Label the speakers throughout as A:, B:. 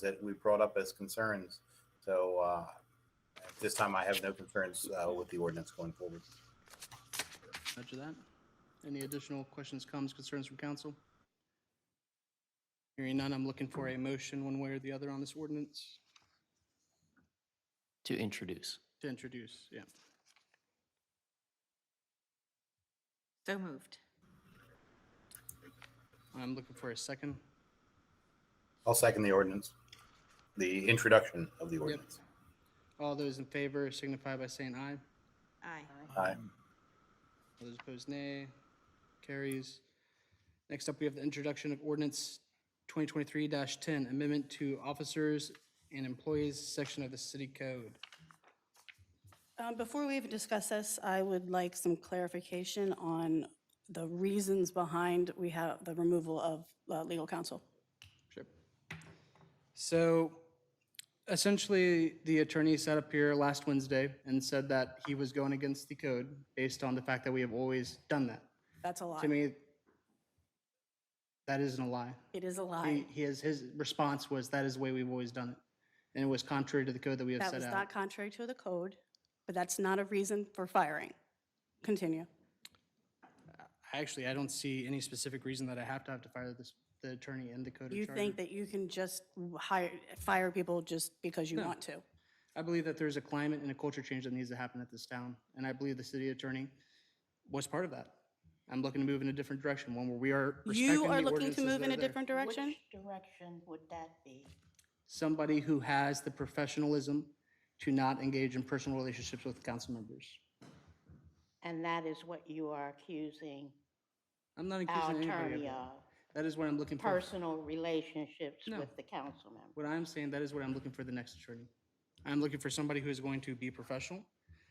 A: that we brought up as concerns. So uh, at this time, I have no concerns uh, with the ordinance going forward.
B: Roger that. Any additional questions, comments, concerns from council? Hearing none, I'm looking for a motion one way or the other on this ordinance
C: To introduce.
B: to introduce, yeah.
D: So moved.
B: I'm looking for a second.
A: I'll second the ordinance, the introduction of the ordinance.
B: All those in favor signify by saying aye.
D: Aye.
A: Aye.
B: All those opposed, nay. Carries. Next up, we have the introduction of ordinance 2023-10, amendment to officers and employees section of the city code.
E: Um, Before we even discuss this, I would like some clarification on the reasons behind we have the removal of uh, legal counsel.
B: Sure. So essentially, the attorney sat up here last Wednesday and said that he was going against the code based on the fact that we have always done that.
E: That's a
B: To
E: lie.
B: me, that isn't a lie.
E: It is a
B: He,
E: lie.
B: he has, his response was, that is the way we've always done it. And it was contrary to the code that we have
E: That
B: set
E: was
B: out.
E: not contrary to the code, but that's not a reason for firing. Continue.
B: Actually, I don't see any specific reason that I have to have to fire this, the attorney and the code
E: You
B: of charter.
E: think that you can just hire, fire people just because you want to?
B: I believe that there's a climate and a culture change that needs to happen at this town, and I believe the city attorney was part of that. I'm looking to move in a different direction, one where we are respecting
E: You
B: the
E: are looking
B: ordinances
E: to move
B: that
E: in
B: are
E: a
B: there.
E: different direction?
F: Which direction would that be?
B: Somebody who has the professionalism to not engage in personal relationships with council members.
F: And that is what you are accusing
B: I'm not
F: our
B: accusing anybody of
F: attorney
B: that.
F: of,
B: That is what I'm looking for.
F: personal relationships with the council member.
B: What I'm saying, that is what I'm looking for the next attorney. I'm looking for somebody who is going to be professional,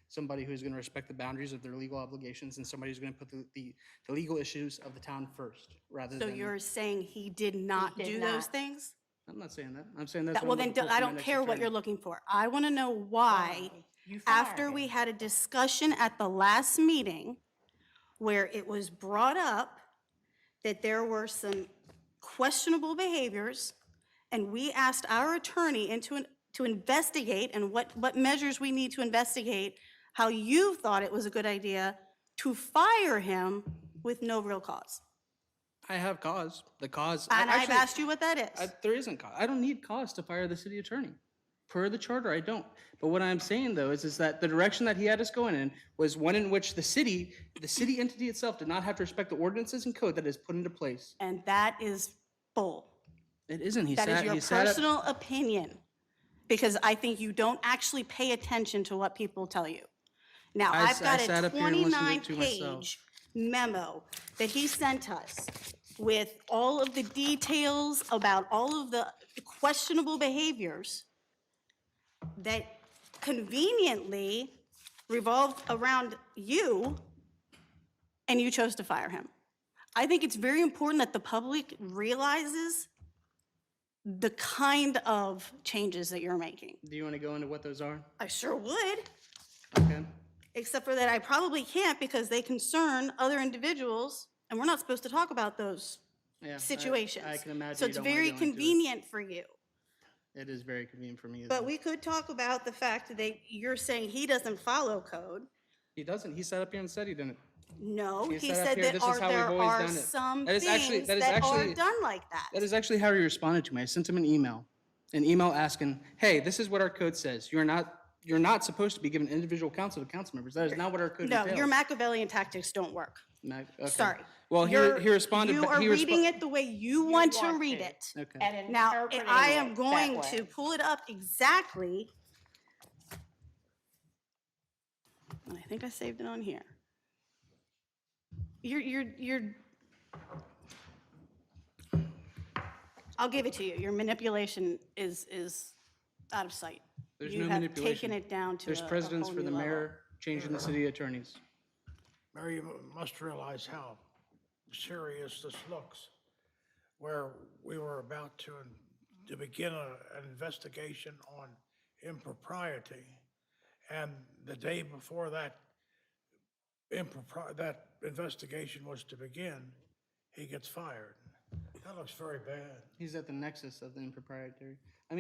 B: somebody who's going to respect the boundaries of their legal obligations, and somebody who's going to put the, the the legal issues of the town first, rather
E: So
B: than.
E: you're saying he did not
F: did
E: do those
F: not.
E: things?
B: I'm not saying that. I'm saying that's.
E: That- Well, then, do- I don't care what you're looking for. I want to know why, after we had a discussion at the last meeting where it was brought up that there were some questionable behaviors, and we asked our attorney into, an- to investigate and what, what measures we need to investigate, how you thought it was a good idea to fire him with no real cause.
B: I have cause. The cause. I-
E: And I've
B: actually,
E: asked you what that is.
B: I- There isn't cause. I don't need cause to fire the city attorney. Per the charter, I don't. But what I'm saying though is, is that the direction that he had us going in was one in which the city, the city entity itself did not have to respect the ordinances and code that is put into place.
E: And that is bull.
B: It isn't. He
E: That is
B: sat,
E: your
B: he sat up-
E: personal opinion, because I think you don't actually pay attention to what people tell you. Now,
B: I
E: I've
B: s- I
E: got
B: sat
E: a
B: up here and listened to it to
E: 29-page memo that he sent us with all of the details about all of the questionable behaviors that conveniently revolved around you, and you chose to fire him. I think it's very important that the public realizes the kind of changes that you're making.
B: Do you want to go into what those are?
E: I sure would,
B: Okay.
E: except for that I probably can't because they concern other individuals, and we're not supposed to talk about those
B: Yeah, I-
E: situations.
B: I can imagine.
E: So
B: you
E: it's
B: don't wanna
E: very
B: go into it.
E: convenient for you.
B: It is very convenient for me. as
E: But
B: well.
E: we could talk about the fact that you're saying he doesn't follow code.
B: He doesn't. He sat up here and said he didn't.
E: No,
B: He
E: he
B: said up
E: said
B: here,
E: that
B: "This is
E: are,
B: how we've
E: there
B: always
E: are
B: done it."
E: some
B: That is actually-
E: things
B: that is
E: that are
B: actually-
E: done like that.
B: That is actually how he responded to me. I sent him an email, an email asking, "Hey, this is what our code says. You're not, you're not supposed to be giving individual counsel to council members. That is not what our code
E: No,
B: entails."
E: your Machiavellian tactics don't work.
B: Mac- okay.
E: Sorry.
B: Well, he,
E: You're-
B: he responded.
E: You
B: ba-
E: are
B: he respo-
E: reading it the way you want to
F: want
E: read
F: to.
E: it.
B: Okay.
F: And
E: Now,
F: interpreting
E: I am
F: it that
E: going
F: way.
E: to pull it up exactly. And I think I saved it on here. You're, you're, you're. I'll give it to you. Your manipulation is, is out of sight.
B: There's
E: You
B: no
E: have
B: manipulation.
E: taken it down to
B: There's
E: a- a
B: precedents
E: whole
B: for
E: new
B: the
E: level.
B: mayor changing the city attorneys.
G: Mayor, you must realize how serious this looks, where we were about to, to begin a- an investigation on impropriety. And the day before that impropri, that investigation was to begin, he gets fired. That looks very bad.
B: He's at the nexus of the impropriety. I mean.